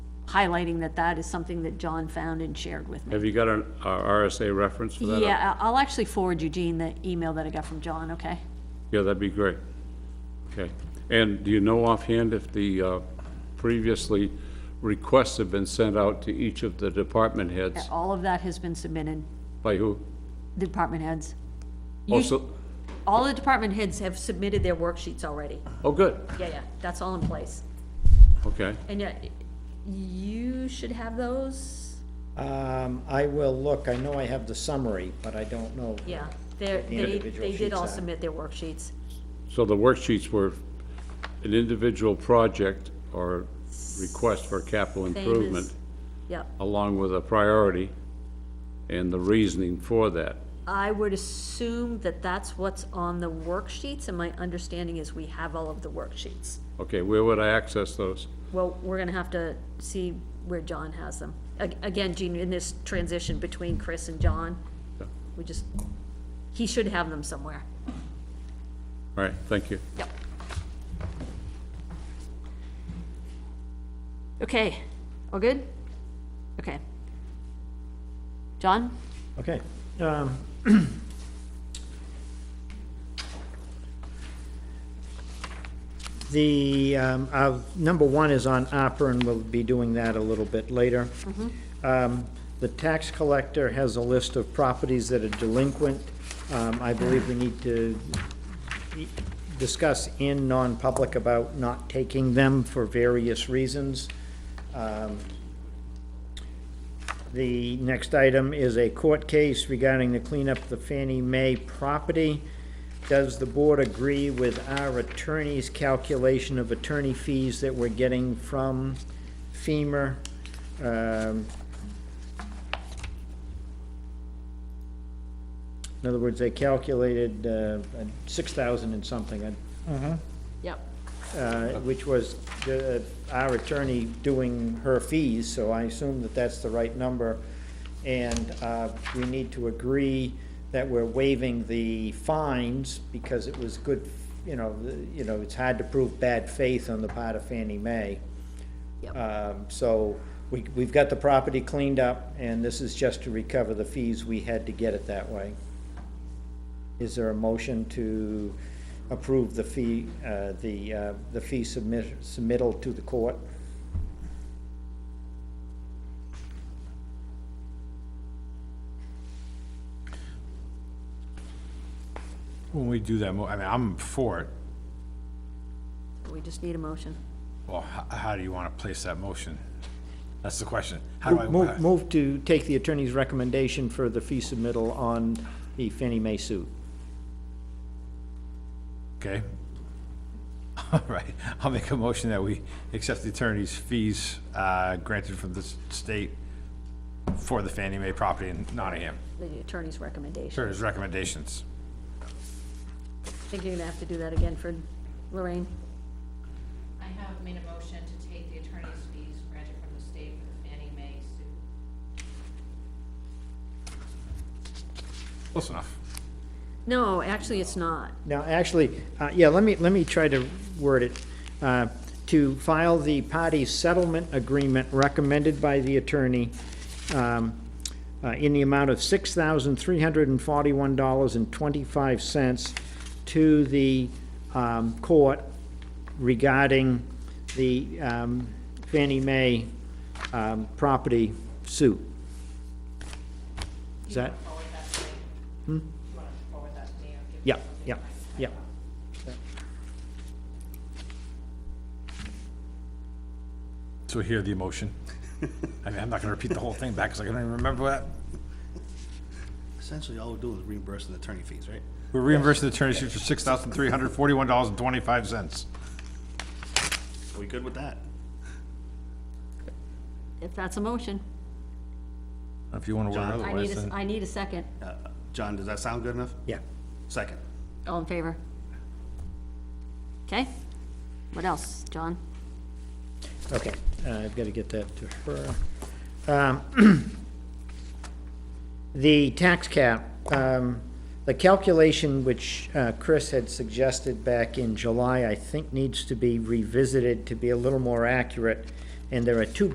highlighting that that is something that John found and shared with me. Have you got an a RSA reference for that? Yeah, I- I'll actually forward Eugene the email that I got from John, okay? Yeah, that'd be great. Okay. And do you know offhand if the uh, previously requests have been sent out to each of the department heads? All of that has been submitted, By who? the department heads. You- Also, All the department heads have submitted their worksheets already. oh, good, Yeah, yeah, that's all in place. okay. And yet, you should have those, Um, I will look, I know I have the summary, but I don't know. yeah. They're, The they, individual they did sheets all are. submit their worksheets. So the worksheets were an individual project or request for capital Same as- improvement, Yep. along with a priority and the reasoning for that. I would assume that that's what's on the worksheets, and my understanding is we have all of the worksheets. Okay, where would I access those? Well, we're gonna have to see where John has them. Ag- Again, Gene, in this transition between Chris and John, Yeah. we just, he should have them somewhere. All right, thank you. Yep. Okay, all good? Okay. John? Okay. um, The, um, uh, number one is on opera, and we'll be doing that a little bit later. Um, The tax collector has a list of properties that are delinquent. Um, I believe we need to discuss in non-public about not taking them for various reasons. Um, The next item is a court case regarding the cleanup of the Fannie Mae property. Does the board agree with our attorney's calculation of attorney fees that we're getting from FEMA? Um, In other words, they calculated uh, six thousand and something, I Yep. uh, which was uh, our attorney doing her fees, so I assume that that's the right number. And uh, we need to agree that we're waiving the fines because it was good, you know, the- you know, it's hard to prove bad faith on the part of Fannie Mae. Yep. Um, So we, we've got the property cleaned up, and this is just to recover the fees we had to get it that way. Is there a motion to approve the fee, uh, the, uh, the fee submit, submittal to the court? When we do that, mo- I mean, I'm for it. We just need a motion. Well, how, how do you want to place that motion? That's the question. How do I, Move, move to take the attorney's recommendation for the fee submittal on the Fannie Mae suit. okay? All right, I'll make a motion that we accept the attorney's fees, uh, granted from the s- state for the Fannie Mae property in Nottingham. The attorney's recommendation. Attorney's recommendations. I think you're gonna have to do that again for Lorraine. I have made a motion to take the attorney's fees granted from the state for the Fannie Mae suit. Close enough. No, actually, it's not. Now, actually, uh, yeah, let me, let me try to word it. Uh, To file the party settlement agreement recommended by the attorney um, uh, in the amount of $6,341.25 to the um, court regarding the um, Fannie Mae um, property suit. Is that? Hmm? Forward that to me. You want to forward that to me or give? Yeah, yeah, yeah. So hear the emotion. I mean, I'm not gonna repeat the whole thing back, because I don't even remember what. Essentially, all we're doing is reimbursing the attorney fees, right? We're reimbursing the attorney's fees for six thousand three hundred forty-one dollars and twenty-five cents. We good with that? If that's a motion, If you want to word John? it I need otherwise, a, then. I need a second. Uh, John, does that sound good enough? Yeah. Second. All in favor? Okay? What else, John? Okay, uh, I've got to get that to her. Um, The tax cap, um, the calculation which uh, Chris had suggested back in July, I think needs to be revisited to be a little more accurate. And there are two